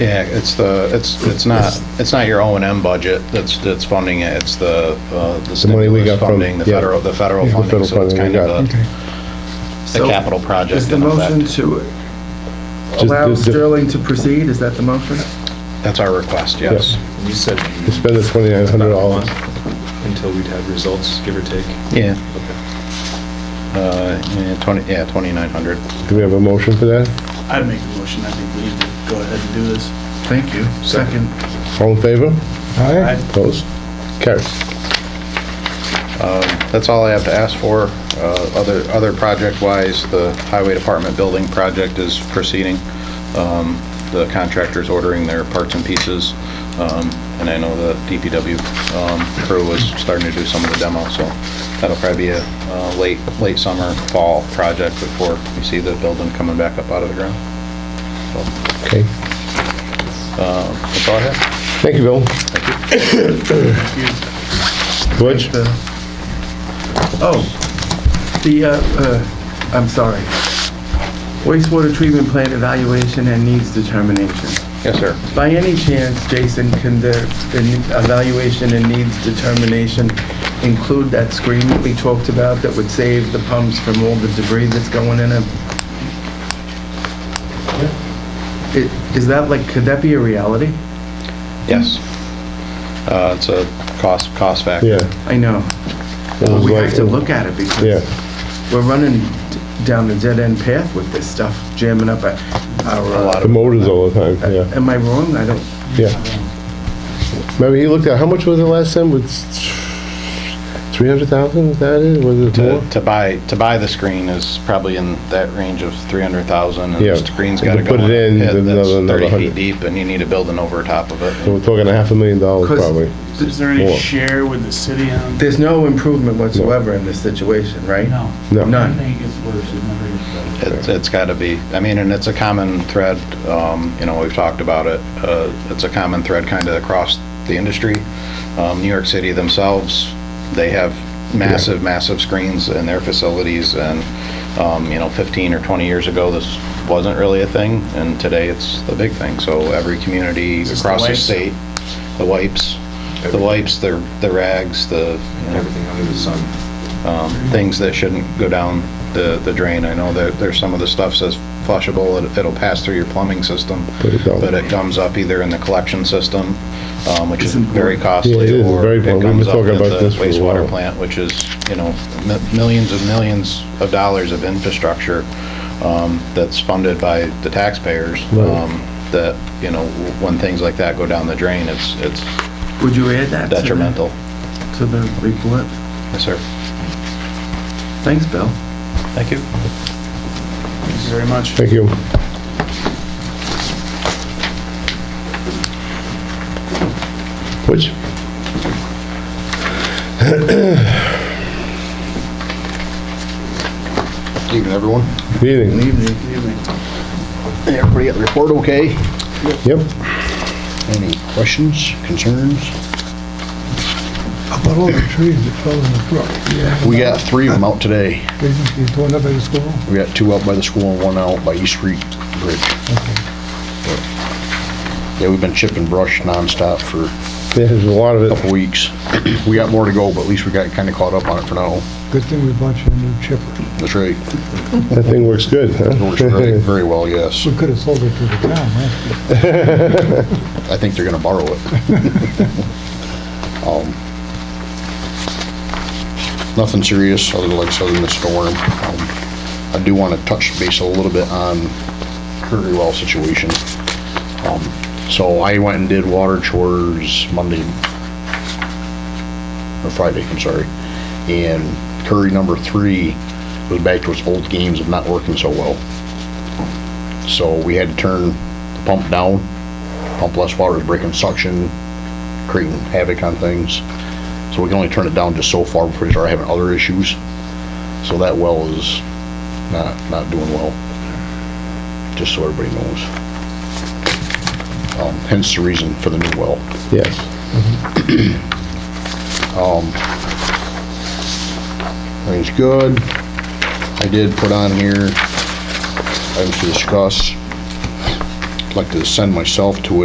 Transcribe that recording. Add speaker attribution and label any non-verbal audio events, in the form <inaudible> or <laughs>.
Speaker 1: Yeah, it's the, it's, it's not, it's not your O and M budget that's, that's funding it, it's the, uh, the
Speaker 2: money we
Speaker 1: stimulus
Speaker 2: got from-
Speaker 1: funding, the
Speaker 2: yeah.
Speaker 1: federal, the federal
Speaker 2: Yeah,
Speaker 1: funding,
Speaker 2: the federal
Speaker 1: so it's kind
Speaker 2: funding we
Speaker 1: of
Speaker 2: got.
Speaker 1: a, the
Speaker 3: So,
Speaker 1: capital project
Speaker 3: Is the
Speaker 1: in
Speaker 3: motion
Speaker 1: effect.
Speaker 3: to
Speaker 2: Just-
Speaker 3: allow
Speaker 2: just-
Speaker 3: Sterling to proceed, is that the motion?
Speaker 1: That's our request, yes.
Speaker 4: You said
Speaker 2: To spend the twenty-nine hundred
Speaker 4: about a
Speaker 2: dollars.
Speaker 4: month until we'd have results, give or take.
Speaker 1: Yeah.
Speaker 4: Okay.
Speaker 1: Uh, yeah, twenty, yeah, twenty-nine hundred.
Speaker 2: Do we have a motion for that?
Speaker 5: I'd make the motion, I think we need to go ahead and do this.
Speaker 3: Thank you.
Speaker 5: Second.
Speaker 2: All in favor?
Speaker 5: Aye.
Speaker 2: Opposed? Carries.
Speaker 1: That's all I have to ask for. Uh, Other, other project-wise, the highway department building project is proceeding. Um, The contractor's ordering their parts and pieces, um, and I know the DPW um, crew was starting to do some of the demo, so that'll probably be a uh, late, late summer, fall project before we see the building coming back up out of the ground.
Speaker 2: Okay.
Speaker 1: That's all I have.
Speaker 2: Thank you, Bill. George?
Speaker 3: The- Oh, the, uh, uh, I'm sorry. Wastewater treatment plant evaluation and needs determination.
Speaker 1: Yes, sir.
Speaker 3: By any chance, Jason, can the, the evaluation and needs determination include that screen that we talked about that would save the pumps from all the debris that's going in it? I- Is that like, could that be a reality?
Speaker 1: Yes. Uh, It's a cost, cost factor.
Speaker 2: Yeah.
Speaker 3: I know.
Speaker 2: it was
Speaker 3: We
Speaker 2: like-
Speaker 3: have to look at it because
Speaker 2: Yeah,
Speaker 3: we're running d- down a dead-end path with this stuff, jamming up our-
Speaker 1: A lot
Speaker 3: our,
Speaker 2: the
Speaker 1: of,
Speaker 2: motors all the
Speaker 3: uh,
Speaker 2: time, yeah,
Speaker 3: am I wrong? I don't,
Speaker 2: yeah. Remember, he looked at, how much was it last time? Was three hundred thousand, is that it? Was it more?
Speaker 1: to to buy, to buy the screen is probably in that range of 300,000, and the
Speaker 2: Yeah.
Speaker 1: screen's
Speaker 2: And
Speaker 1: gotta
Speaker 2: to
Speaker 1: go
Speaker 2: put
Speaker 1: in
Speaker 2: it in,
Speaker 1: a pit
Speaker 2: there's
Speaker 1: that's
Speaker 2: another- another
Speaker 1: 30 feet
Speaker 2: 100.
Speaker 1: deep, and you need a building over top of
Speaker 2: So
Speaker 1: it.
Speaker 2: we're talking a half a million dollars
Speaker 3: Because-
Speaker 2: probably.
Speaker 5: Is there any
Speaker 2: More.
Speaker 5: share with the city on?
Speaker 3: there's no improvement whatsoever in this situation, right?
Speaker 5: No.
Speaker 2: No.
Speaker 3: None.
Speaker 5: I think it's worse, it never gets better.
Speaker 1: It's, it's gotta be, I mean, and it's a common thread, um, you know, we've talked about it, uh, it's a common thread kind of across the industry. Um, New York City themselves, they have massive, massive screens in their facilities, and, um, you know, 15 or 20 years ago, this wasn't really a thing, and today it's the big thing, so every community
Speaker 5: this the
Speaker 1: across the
Speaker 5: wipes?
Speaker 1: state, the wipes, the
Speaker 4: Everything.
Speaker 1: wipes, the, the rags, the, you know,
Speaker 4: Everything under the sun.
Speaker 1: things that shouldn't go down the, the drain. I know that there's some of the stuff says flushable, it- it'll pass through your plumbing system,
Speaker 2: But it don't.
Speaker 1: but it comes up either in the collection system, um, which is
Speaker 3: It's important.
Speaker 1: very
Speaker 2: Yeah, it
Speaker 1: costly,
Speaker 2: is
Speaker 1: or
Speaker 2: very
Speaker 1: it
Speaker 2: important. We've been
Speaker 1: comes up
Speaker 2: talking
Speaker 1: at
Speaker 2: about
Speaker 1: the
Speaker 2: this for a while.
Speaker 1: wastewater plant, which is, you know, mi- millions and millions of dollars of infrastructure um, that's funded by the taxpayers,
Speaker 2: Right.
Speaker 1: um, that, you know, w- when things like that go down the drain, it's, it's
Speaker 3: Would you add that? to the-
Speaker 1: detrimental.
Speaker 3: To the report?
Speaker 1: Yes, sir.
Speaker 3: Thanks, Bill.
Speaker 1: Thank you.
Speaker 5: Thank you very much.
Speaker 2: Thank you. Which?
Speaker 1: Evening, everyone.
Speaker 2: Good Evening.
Speaker 3: Evening.
Speaker 1: Everybody got the report okay?
Speaker 2: Yep.
Speaker 1: Any questions, concerns?
Speaker 6: About all the trees that fell in the brook.
Speaker 7: We got three of them out today.
Speaker 6: They just get torn up at the school.
Speaker 7: We got two out by the school and one out by East Street Bridge. Yeah, we've been chipping brush nonstop for a
Speaker 2: There's a lot of it.
Speaker 7: couple weeks. We got more to go, but at least we got kind of caught up on it for now.
Speaker 6: Good thing we bought you a new chipper.
Speaker 7: That's right.
Speaker 2: That thing works good, huh?
Speaker 7: It works very, very well, yes.
Speaker 6: We could have sold it to the town, huh?
Speaker 7: I think they're gonna borrow it. Um, Nothing serious, other than, like, other than the storm. Um, I do wanna touch base a little bit on Curry Well situation. Um, So I went and did water chores Monday, or Friday, I'm sorry. And Curry number three was back to its old games of not working so well. So we had to turn the pump down pump less water is breaking suction, creating havoc on things. So we can only turn it down just so far before we start having other issues. So that well is not, not doing well, just so everybody knows. Um, hence the reason for the new well.
Speaker 2: <laughs> Yes.
Speaker 7: Everything's good. I did put on here, items to discuss.
Speaker 1: like to send myself to